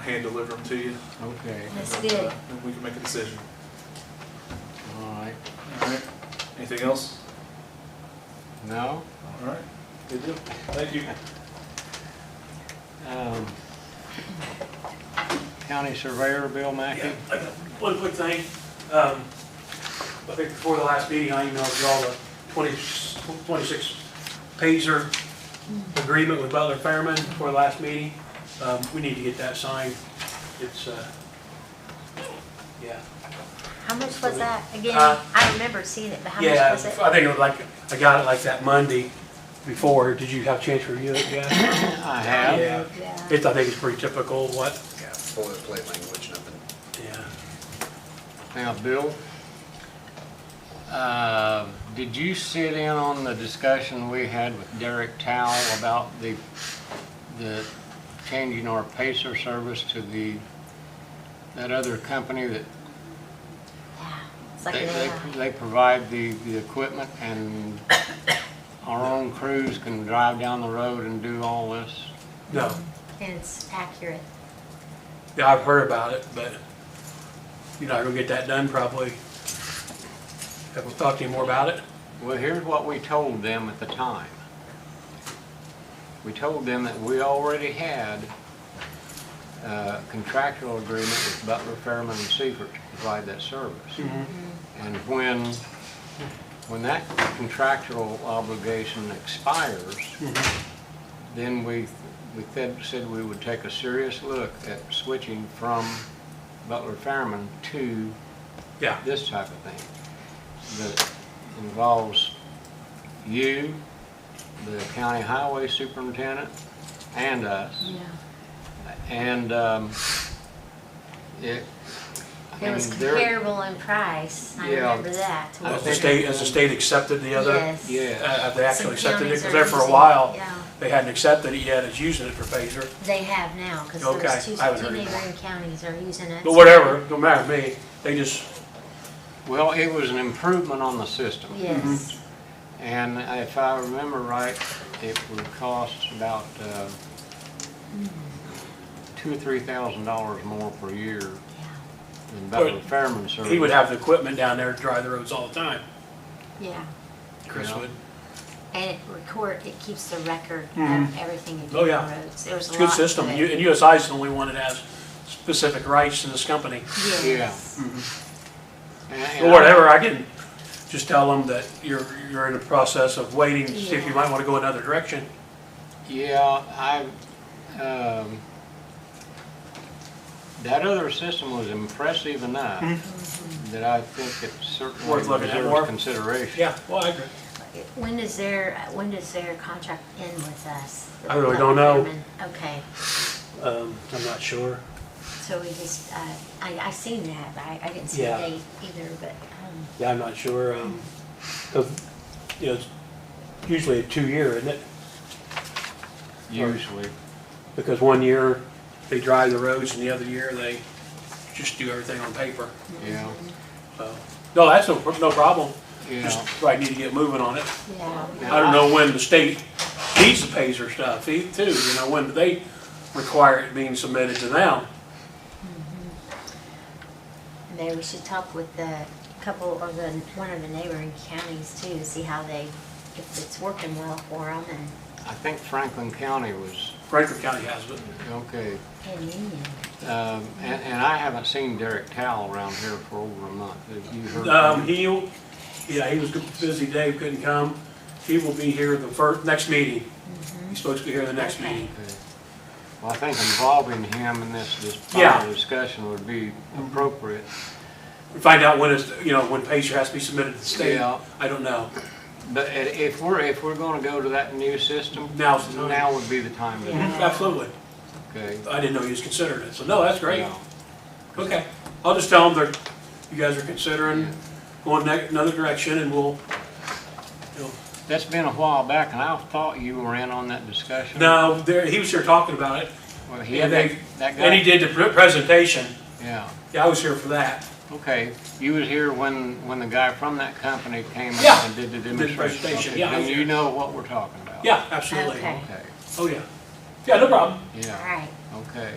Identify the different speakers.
Speaker 1: hand deliver them to you.
Speaker 2: Okay,
Speaker 3: That's
Speaker 1: And, uh,
Speaker 3: good.
Speaker 1: And we can make a decision.
Speaker 2: all right.
Speaker 1: All right. Anything else?
Speaker 2: No?
Speaker 1: All right. Good deal. Thank you.
Speaker 2: Um, County Surveyor Bill Mackey?
Speaker 4: Yeah, I got One quick thing, um, I think before the last meeting, I emailed you all the 20 26 pager agreement with Butler Fairman for the last meeting. Um, we need to get that signed, it's, uh, yeah.
Speaker 3: How much was that again?
Speaker 4: Huh?
Speaker 3: I remember seeing it, but how much
Speaker 4: Uh, Yeah,
Speaker 3: was it?
Speaker 4: I think it was like, I got it like that Monday before, did you have a chance to review it, yeah?
Speaker 2: I have.
Speaker 4: Yeah,
Speaker 3: Yeah.
Speaker 4: it's, I think it's pretty typical, what,
Speaker 5: Yeah, boilerplate language, nothing.
Speaker 4: yeah.
Speaker 2: Now, Bill, uh, did you sit in on the discussion we had with Derek Towle about the, the changing our Pacer service to the, that other company that
Speaker 3: Yeah. It's like,
Speaker 2: They, they,
Speaker 3: yeah.
Speaker 2: they provide the, the equipment and our own crews can drive down the road and do all this.
Speaker 4: No,
Speaker 3: And it's accurate.
Speaker 4: yeah, I've heard about it, but you're not gonna get that done probably. Have we talked to you more about it?
Speaker 2: Well, here's what we told them at the time. We told them that we already had a uh, contractual agreement with Butler, Fairman, and Seifert to provide that service. And when, when that contractual obligation expires, then we, we said, said we would take a serious look at switching from Butler Fairman to
Speaker 4: Yeah,
Speaker 2: this type of thing that involves you, the county highway superintendent, and us.
Speaker 3: Yeah.
Speaker 2: And um, it. I
Speaker 3: It was
Speaker 2: mean, they're-
Speaker 3: comparable in price. I
Speaker 2: Yeah.
Speaker 3: remember that. to
Speaker 2: I
Speaker 3: what
Speaker 4: has the
Speaker 2: think-
Speaker 3: we-
Speaker 4: state, has the state accepted the other?
Speaker 3: Yes.
Speaker 2: Yeah.
Speaker 4: Uh, Have they
Speaker 3: Some
Speaker 4: actually accepted it?
Speaker 3: counties
Speaker 4: Because
Speaker 3: are
Speaker 4: there for a
Speaker 3: using-
Speaker 4: while,
Speaker 3: Yeah,
Speaker 4: they hadn't accepted it yet, it's using it for phaser.
Speaker 3: they have now, because
Speaker 4: Okay,
Speaker 3: there's two,
Speaker 4: I haven't
Speaker 3: two
Speaker 4: heard it.
Speaker 3: neighboring counties are using it.
Speaker 4: But whatever, don't matter to me, they just,
Speaker 2: Well, it was an improvement on the system.
Speaker 3: Yes.
Speaker 4: Mm-hmm.
Speaker 2: And if I remember right, it would cost about uh, two or three thousand dollars more per year than Butler
Speaker 4: But
Speaker 2: Fairman service.
Speaker 4: he would have the equipment down there to drive the roads all the time,
Speaker 3: Yeah.
Speaker 4: Chris
Speaker 2: Yeah.
Speaker 4: would.
Speaker 3: And it record, it keeps the record of
Speaker 4: Mhm.
Speaker 3: everything you do
Speaker 4: Oh,
Speaker 3: on
Speaker 4: yeah.
Speaker 3: roads. There's a
Speaker 4: It's a
Speaker 3: lot.
Speaker 4: good
Speaker 3: of
Speaker 4: system,
Speaker 3: it.
Speaker 4: You- and USI is the only one that has specific rights to this company.
Speaker 3: Yes.
Speaker 2: And-
Speaker 4: Or whatever, I can just tell them that you're, you're in the process of waiting to see if you
Speaker 3: Yeah.
Speaker 4: might want to go another direction.
Speaker 2: Yeah, I, um, that other system was impressive enough that I think it certainly
Speaker 4: Mm-hmm. Worth looking at
Speaker 2: deserves
Speaker 4: more.
Speaker 2: consideration.
Speaker 4: Yeah, well, I agree.
Speaker 3: When does their, when does their contract end with us?
Speaker 4: I really don't know.
Speaker 3: Okay,
Speaker 4: Um, I'm not sure.
Speaker 3: so we just, uh, I, I seen that, but I, I didn't see the
Speaker 4: Yeah.
Speaker 3: date either, but, um,
Speaker 4: Yeah, I'm not sure, um, 'cause, you know, it's usually a two-year, isn't it?
Speaker 2: Usually.
Speaker 4: Because one year, they drive the roads, and the other year, they just do everything on paper,
Speaker 2: Yeah,
Speaker 4: so. No, that's no, no problem,
Speaker 2: yeah.
Speaker 4: just, right, need to get moving on it.
Speaker 3: yeah.
Speaker 4: I don't know when the state needs the Pacer stuff, e- too, you know, when do they require it being submitted to them?
Speaker 3: Maybe we should talk with the couple, or the, one of the neighboring counties too, see how they, if it's working well for them and,
Speaker 2: I think Franklin County was,
Speaker 4: Frederick County has it.
Speaker 2: okay.
Speaker 3: and Union.
Speaker 2: Um, and, and I haven't seen Derek Towle around here for over a month. Have you heard? from
Speaker 4: Um,
Speaker 2: him?
Speaker 4: he, yeah, he was busy, Dave couldn't come. He will be here the first, next meeting. He's supposed to be here the next
Speaker 3: Mm-hmm. Okay.
Speaker 4: meeting.
Speaker 2: Okay. Well, I think involving him in this, this
Speaker 4: Yeah.
Speaker 2: final discussion would be appropriate.
Speaker 4: Find out when it's, you know, when Pacer has to be submitted to the state.
Speaker 2: Yeah.
Speaker 4: I don't know.
Speaker 2: But i- if we're, if we're gonna go to that new system,
Speaker 4: Now's the time.
Speaker 2: now would be the time to do it,
Speaker 4: Absolutely.
Speaker 2: okay?
Speaker 4: I didn't know he was considering it, so no, that's great.
Speaker 2: Yeah.
Speaker 4: Okay. I'll just tell him that you guys are considering going ne- another direction and we'll, you know.
Speaker 2: That's been a while back, and I thought you were in on that discussion.
Speaker 4: No, there, he was here talking about it.
Speaker 2: Well, he
Speaker 4: And
Speaker 2: had
Speaker 4: they,
Speaker 2: that, that
Speaker 4: and he
Speaker 2: guy,
Speaker 4: did the pre- presentation.
Speaker 2: yeah,
Speaker 4: Yeah, I was here for that.
Speaker 2: okay. You was here when, when the guy from that company came up
Speaker 4: Yeah.
Speaker 2: and did the
Speaker 4: the
Speaker 2: demonstration.
Speaker 4: presentation,
Speaker 2: Okay,
Speaker 4: yeah, I
Speaker 2: Then
Speaker 4: was
Speaker 2: you
Speaker 4: here.
Speaker 2: know what we're talking about.
Speaker 4: Yeah, absolutely.
Speaker 3: Okay.
Speaker 2: Okay,
Speaker 4: Oh, yeah. Yeah, no problem.
Speaker 2: yeah,
Speaker 3: Alright,
Speaker 2: okay.